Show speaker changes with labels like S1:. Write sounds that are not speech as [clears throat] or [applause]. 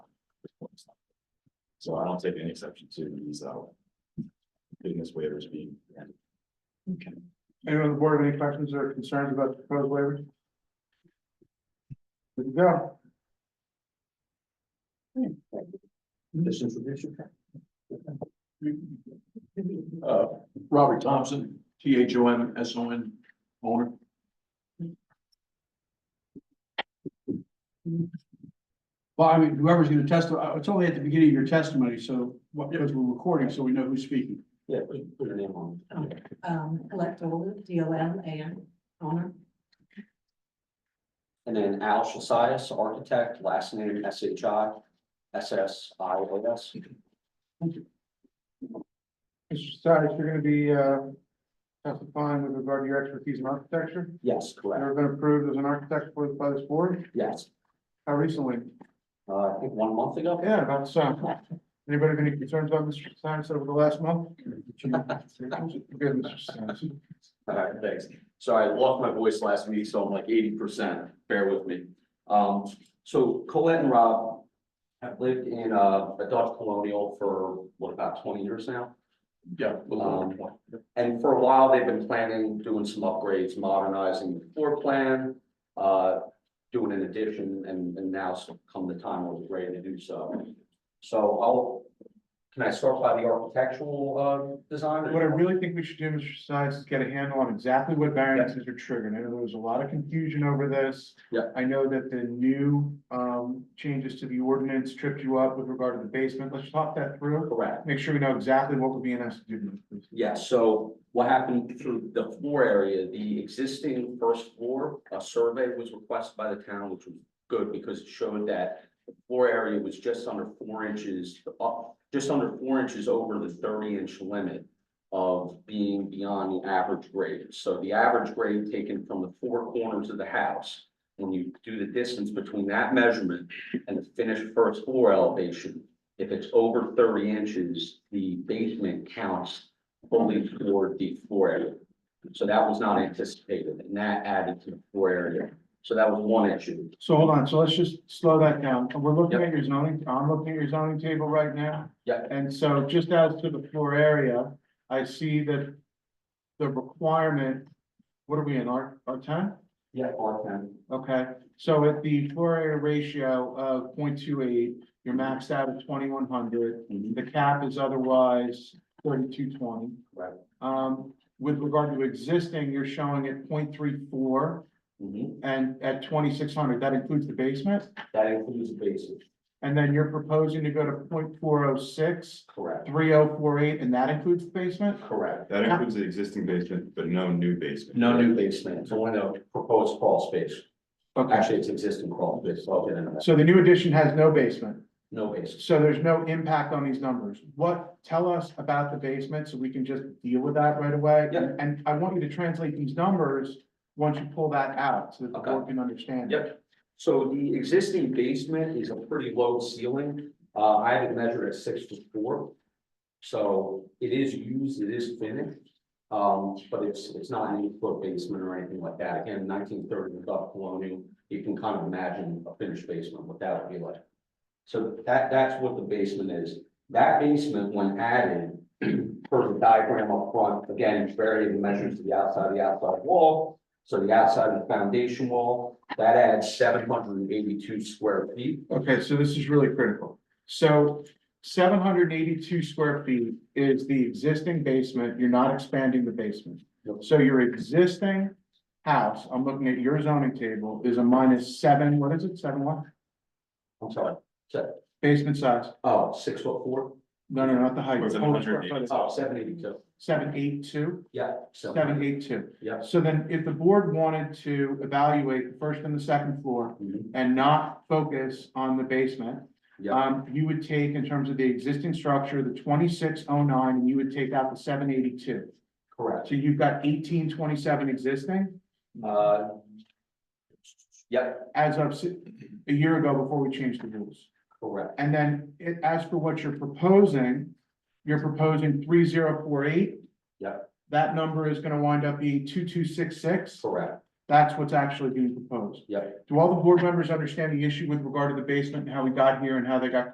S1: So I don't take any exception to these out. Business waivers being. granted.
S2: Anyone on the board, any questions or concerns about the proposed waivers? There you go.
S3: This information. Uh, Robert Thompson, T H O M S O N, owner.
S2: Well, I mean, whoever's gonna testify, it's only at the beginning of your testimony, so what, because we're recording, so we know who's speaking.
S3: Yeah, put put your name on.
S4: Okay. Um, elect Dolan, D O L A N, owner.
S5: And then Al Shasias, architect, last name S H I S S I O S.
S2: Mr. Stiles, you're gonna be, uh, testifying with regard to your expertise in architecture.
S5: Yes, correct,
S2: Never been approved as an architect for, by this board,
S5: yes.
S2: how recently?
S5: Uh, I think one month ago.
S2: Yeah, about so. Anybody have any concerns about Mr. Stiles over the last month? Good, Mr. Stiles.
S1: All right, thanks. Sorry, I lost my voice last week, so I'm like eighty percent. Bear with me.
S5: Um, so Colette and Rob have lived in uh, a Dutch colonial for what, about twenty years now?
S3: Yeah. a little over
S5: Um,
S3: 20.
S5: And for a while, they've been planning, doing some upgrades, modernizing the floor plan, uh, doing an addition, and, and now's come the time when we're ready to do so. So I'll, can I start by the architectural, uh, design? or-
S2: What I really think we should do, Mr. Science, is get a handle on exactly what variances are triggered. I know there was a lot of confusion over this.
S5: Yeah.
S2: I know that the new um changes to the ordinance tripped you up with regard to the basement. Let's talk that through.
S5: Correct.
S2: Make sure we know exactly what we're being asked to do. please.
S5: Yeah, so what happened through the floor area, the existing first floor, a survey was requested by the town, which was good because it showed that the floor area was just under four inches, up, just under four inches over the thirty inch limit of being beyond the average grade. So the average grade taken from the four corners of the house, when you do the distance between that measurement and the finished first floor elevation, if it's over thirty inches, the basement counts only for the floor area. So that was not anticipated, and that added to the floor area. So that was one issue.
S2: So hold on, so let's just slow that down. We're looking at your zoning, I'm looking at your zoning table right now.
S5: Yeah.
S2: And so just as to the floor area, I see that the requirement, what are we in, our our ten?
S5: Yeah. R ten.
S2: Okay, so at the floor area ratio of 0.28, two eight, you're maxed out at twenty-one hundred.
S5: Mhm.
S2: The cap is otherwise thirty-two twenty.
S5: Right.
S2: Um, with regard to existing, you're showing at 0.34
S5: Mhm.
S2: and at twenty-six hundred, that includes the basement?
S5: That includes the basement,
S2: And then you're proposing to go to 0.406, 3048,
S5: correct,
S2: and that includes the basement?
S5: correct.
S1: That includes the existing basement, but no new basement.
S5: No new basement, it's only a proposed crawl space.
S2: Okay,
S5: Actually, it's existing crawl space, so I'll get into that.
S2: so the new addition has no basement?
S5: No basement.
S2: So there's no impact on these numbers. What, tell us about the basement so we can just deal with that right away.
S5: Yeah.
S2: And I want you to translate these numbers once you pull that out so that the
S5: Okay.
S2: board can understand. it.
S5: Yep. So the existing basement is a pretty low ceiling. Uh, I have it measured at six to four. So it is used, it is finished. Um, but it's, it's not an eight foot basement or anything like that. Again, nineteen thirty Gulf colonial, you can kind of imagine a finished basement, what that would be like. So that, that's what the basement is. That basement, when added, [clears throat] per the diagram up front, again, it's varying measures to the outside, of the outside wall. So the outside of the foundation wall, that adds seven hundred and eighty-two square feet.
S2: Okay, so this is really critical. So seven hundred and eighty-two square feet is the existing basement. You're not expanding the basement.
S5: Nope.
S2: So your existing house, I'm looking at your zoning table, is a minus seven, what is it, seven what?
S5: I'm sorry, se-
S2: Basement size?
S5: oh, six foot four?
S2: No, no, not the height.
S1: What's it,
S2: Total square foot
S1: 182?
S2: is
S5: Oh, seven eighty-two,
S2: Seven, eight, two?
S5: yeah. so-
S2: Seven, eight, two.
S5: Yes.
S2: So then if the board wanted to evaluate the first and the second floor
S5: Mhm.
S2: and not focus on the basement,
S5: Mm-hmm. Yeah.
S2: um, you would take in terms of the existing structure, the twenty-six oh nine, and you would take out the seven eighty-two.
S5: Correct,
S2: So you've got eighteen twenty-seven existing
S5: uh. Yep,
S2: as of si- a year ago before we changed the rules.
S5: correct,
S2: And then it, as for what you're proposing, you're proposing three zero four eight.
S5: Yeah.
S2: That number is gonna wind up being two two six six.
S5: correct,
S2: That's what's actually being proposed.
S5: yep.
S2: Do all the board members understand the issue with regard to the basement and how we got here and how they got